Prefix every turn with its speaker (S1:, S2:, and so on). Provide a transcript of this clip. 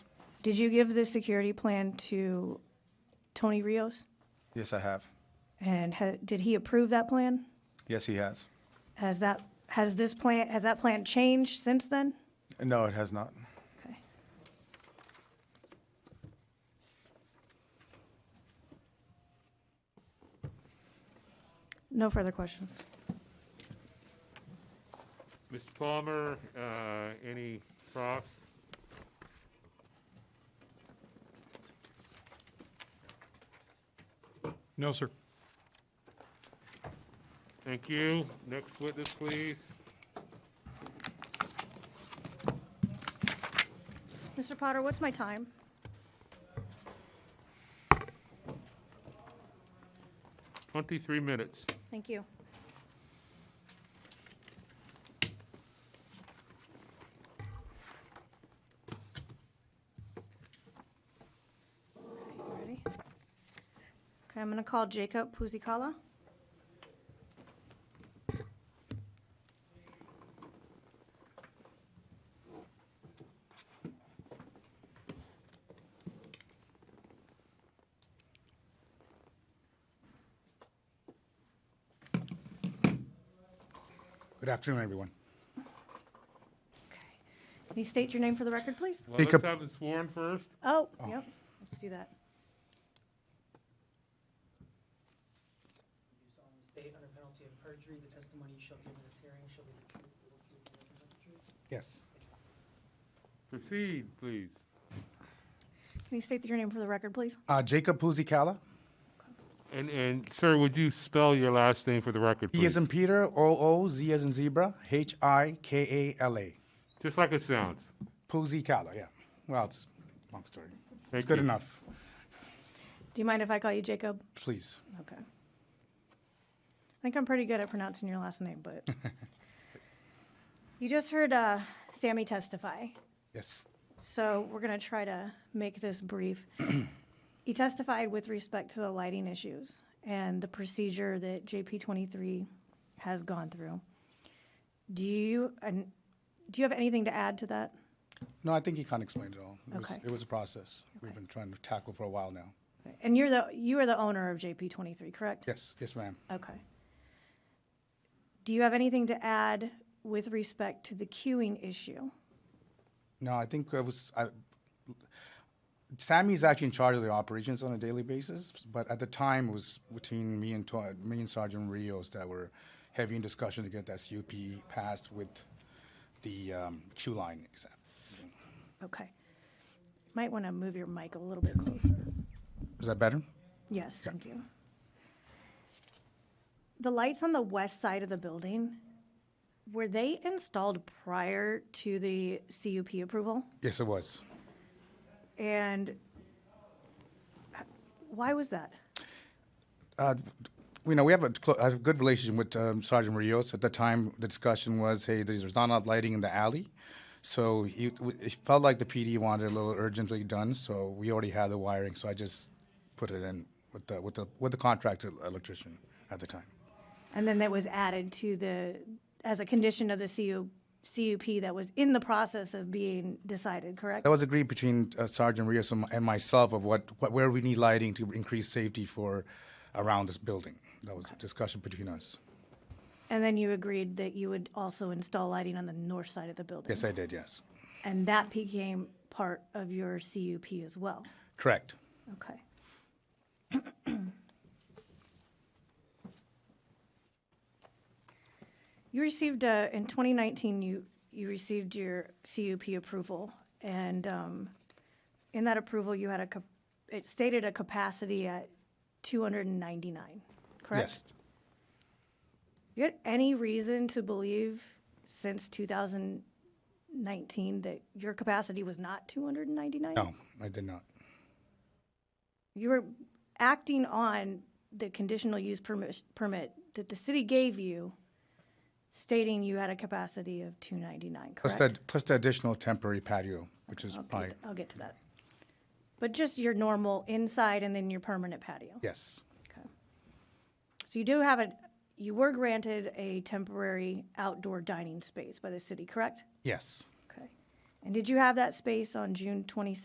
S1: Did you give the security plan to Tony Rios?
S2: Yes, I have.
S1: And ha- did he approve that plan?
S2: Yes, he has.
S1: Has that, has this plan, has that plan changed since then?
S2: No, it has not.
S1: Okay. No further questions.
S3: Mr. Palmer, uh, any props?
S4: No, sir.
S3: Thank you. Next witness, please.
S1: Mr. Potter, what's my time?
S3: Twenty-three minutes.
S1: Thank you. Ready? Okay, I'm gonna call Jacob Puzikala.
S5: Good afternoon, everyone.
S1: Okay. Can you state your name for the record, please?
S3: Well, let's
S5: Jacob.
S3: have it sworn first.
S1: Oh, yep, let's do that.
S6: You solemnly state under penalty of perjury, the testimony you shall give in this hearing shall be the truth, the whole truth, and nothing but the truth.
S5: Yes,
S3: Proceed, please.
S1: Can you state your name for the record, please?
S5: Uh, Jacob Puzikala,
S3: And, and sir, would you spell your last name for the record,
S5: P
S3: please?
S5: as in Peter, O O, Z as in zebra, H I K A L A.
S3: Just like it sounds.
S5: Puzikala, yeah. Well, it's a long story. It's
S3: Thank
S5: good
S3: you.
S5: enough,
S1: Do you mind if I call you Jacob?
S5: please.
S1: Okay. I think I'm pretty good at pronouncing your last name, but. You just heard uh, Sammy testify,
S5: Yes,
S1: so we're going to try to make this brief. He testified with respect to the lighting issues and the procedure that JP 23 has gone through. Do you, and do you have anything to add to that?
S5: no, I think he can't explain it all. It was,
S1: Okay.
S5: it was a process we've been trying to tackle for a while now.
S1: And you're the, you are the owner of JP 23, correct?
S5: Yes, yes, ma'am.
S1: Okay. Do you have anything to add with respect to the queuing issue?
S5: No, I think it was. I, Sammy's actually in charge of the operations on a daily basis, but at the time it was between me and Tor- me and Sergeant Rios that were heavy in discussion to get that CUP passed with the um, Q line exam.
S1: Okay. Might want to move your mic a little bit closer.
S5: Is that better?
S1: Yes, thank you. The lights on the west side of the building, were they installed prior to the CUP approval?
S5: Yes, it was.
S1: And why was that?
S5: You know, we have a, clo- a good relationship with um, Sergeant Rios. At the time, the discussion was, hey, there's not enough lighting in the alley. So he, w- it felt like the PD wanted it a little urgently done, so we already had the wiring, so I just put it in with the, with the, with the contractor electrician at the time.
S1: And then that was added to the, as a condition of the CU, CUP that was in the process of being decided, correct?
S5: That was agreed between uh, Sergeant Rios and, my- and myself of what, what, where we need lighting to increase safety for around this building. That was a discussion between us.
S1: And then you agreed that you would also install lighting on the north side of the building?
S5: Yes, I did, yes.
S1: And that became part of your CUP as well?
S5: Correct.
S1: Okay. You received, uh, in 2019, you, you received your CUP approval, and um, in that approval, you had a, cap- it stated a capacity at 299, correct?
S5: Yes.
S1: You had any reason to believe since 2019 that your capacity was not 299?
S5: No, I did not.
S1: you were acting on the conditional use permit, permit that the city gave you, stating you had a capacity of two ninety-nine,
S5: Plus
S1: correct?
S5: the, plus the additional temporary patio, which is
S1: I'll get-
S5: probably,
S1: I'll get to that. But just your normal inside and then your permanent patio.
S5: yes,
S1: Okay. So you do have a, you were granted a temporary outdoor dining space by the city, correct?
S5: yes.
S1: Okay. And did you have that space on June twenty-sixth?